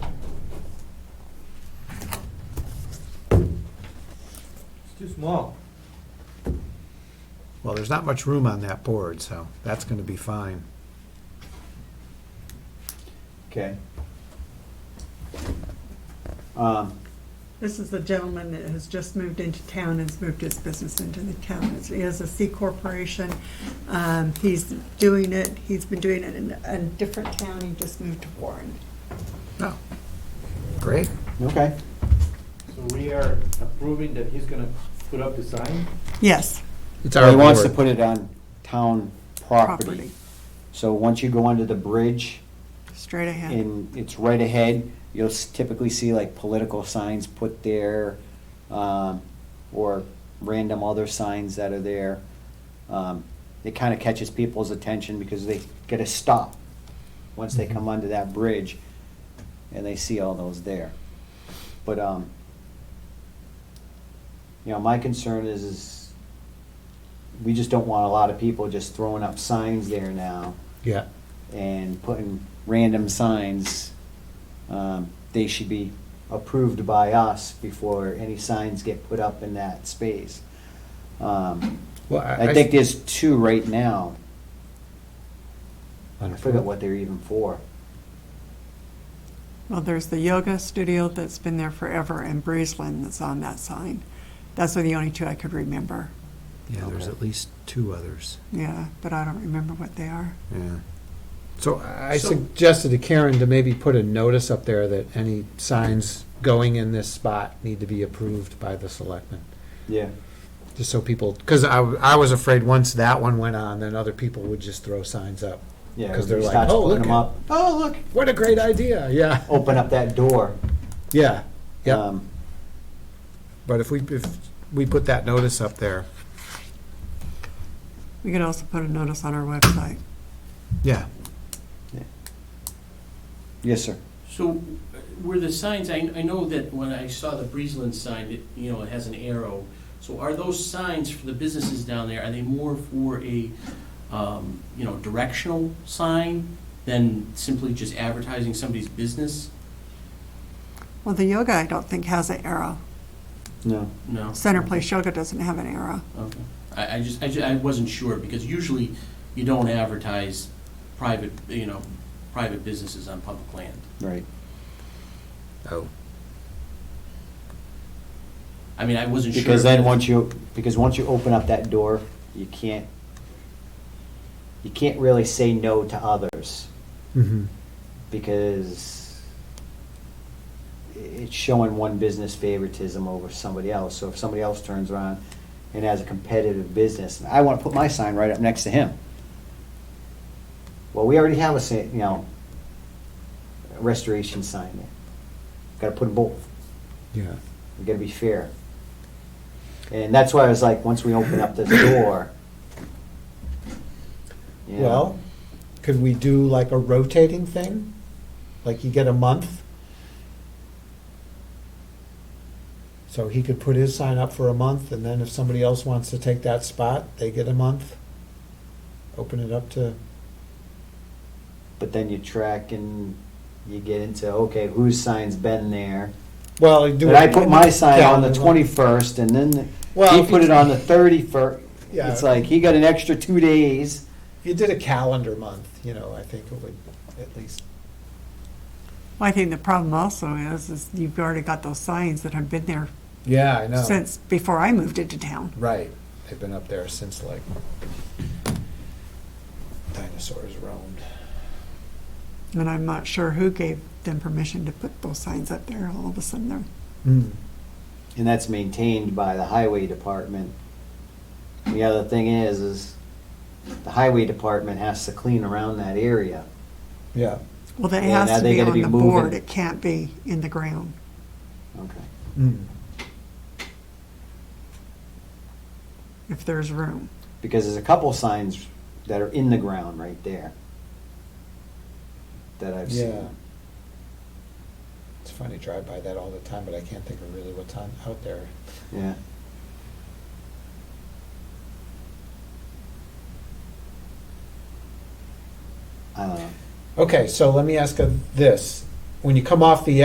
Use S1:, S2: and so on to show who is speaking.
S1: too small.
S2: Well, there's not much room on that board, so that's gonna be fine.
S3: Okay. Um,
S4: This is the gentleman that has just moved into town, has moved his business into the town. It's- He has a C corporation. Um, He's doing it, he's been doing it in a different town, he just moved to Warren.
S2: No. Great.
S3: okay,
S1: So we are approving that he's gonna put up the sign?
S4: Yes,
S2: It's
S3: so
S2: our
S3: he wants to
S2: board.
S3: put it on town property.
S4: Property.
S3: So once you go under the bridge
S4: straight ahead.
S3: and it's right ahead, you'll s- typically see like political signs put there, um, or random other signs that are there. Um, It kind of catches people's attention because they get a stop once they come under that bridge and they see all those there. But, um, you know, my concern is, is we just don't want a lot of people just throwing up signs there now
S2: Yeah.
S3: and putting random signs, um, they should be approved by us before any signs get put up in that space. Um,
S2: Well, I,
S3: I think there's two right now. I
S2: On a
S3: forget what they're even for.
S4: Well, there's the yoga studio that's been there forever and Breezeland that's on that sign. That's the only two I could remember,
S2: Yeah, there's
S3: Okay.
S2: at least two others.
S4: yeah, but I don't remember what they are.
S2: Yeah. So I
S1: So-
S2: suggested to Karen to maybe put a notice up there that any signs going in this spot need to be approved by the selectmen.
S3: Yeah.
S2: Just so people, because I, I was afraid once that one went on, then other people would just throw signs up.
S3: Yeah.
S2: 'Cause they're
S3: everybody
S2: like,
S3: starts
S2: "Oh,
S3: putting
S2: look
S3: them
S2: at-
S3: up. Oh, look,
S2: What a great idea, yeah,
S3: open up that door.
S2: yeah, yeah.
S3: Um,
S2: But if we, if we put that notice up there,
S4: We could also put a notice on our website.
S2: yeah,
S3: Yes, sir.
S5: So uh, were the signs, I, I know that when I saw the Breezeland sign, it, you know, it has an arrow. So are those signs for the businesses down there, are they more for a, um, you know, directional sign than simply just advertising somebody's business?
S4: Well, the yoga, I don't think, has an arrow.
S3: No.
S5: No?
S4: Center Place Yoga doesn't have an arrow.
S5: Okay. I, I just, I ju- I wasn't sure, because usually you don't advertise private, you know, private businesses on public land.
S3: Right.
S2: oh,
S5: I mean, I wasn't sure.
S3: Because then
S5: if-
S3: once you, because once you open up that door, you can't, you can't really say no to others
S2: mm-hmm,
S3: because it's showing one business favoritism over somebody else. So if somebody else turns around and has a competitive business, and I want to put my sign right up next to him. Well, we already have a, sa- you know, restoration sign there. Got to put them both.
S2: yeah.
S3: We gotta be fair. And that's why I was like, once we open up this door. you know,
S2: Well, could we do like a rotating thing? Like you get a month? So he could put his sign up for a month, and then if somebody else wants to take that spot, they get a month? Open it up to,
S3: But then you track and you get into, okay, whose sign's been there?
S2: well, you do.
S3: But
S2: it-
S3: I put my sign on the
S2: Yeah.
S3: twenty-first and then
S2: Well,
S3: he
S2: if
S3: put
S2: you-
S3: it on the thirty-first.
S2: Yeah.
S3: It's like, he got an extra two days.
S2: If you did a calendar month, you know, I think it would at least,
S4: Well, I think the problem also is, is you've already got those signs that have been there
S2: yeah, I know.
S4: since before I moved into town.
S2: Right, they've been up there since like dinosaurs roamed.
S4: And I'm not sure who gave them permission to put those signs up there. All of a sudden, they're,
S3: And that's maintained by the highway department. The other thing is, is the highway department has to clean around that area.
S2: Yeah.
S4: well, that
S3: Yeah, now
S4: has to
S3: they
S4: be
S3: gotta
S4: on
S3: be
S4: the
S3: moving.
S4: board. It can't be in the ground.
S3: Okay.
S2: Mm.
S4: If there's room,
S3: because there's a couple signs that are in the ground right there that I've
S2: Yeah.
S3: seen.
S2: It's funny, drive by that all the time, but I can't think of really what's on out there.
S3: Yeah. I don't know.
S2: Okay, so let me ask of this. When you come off the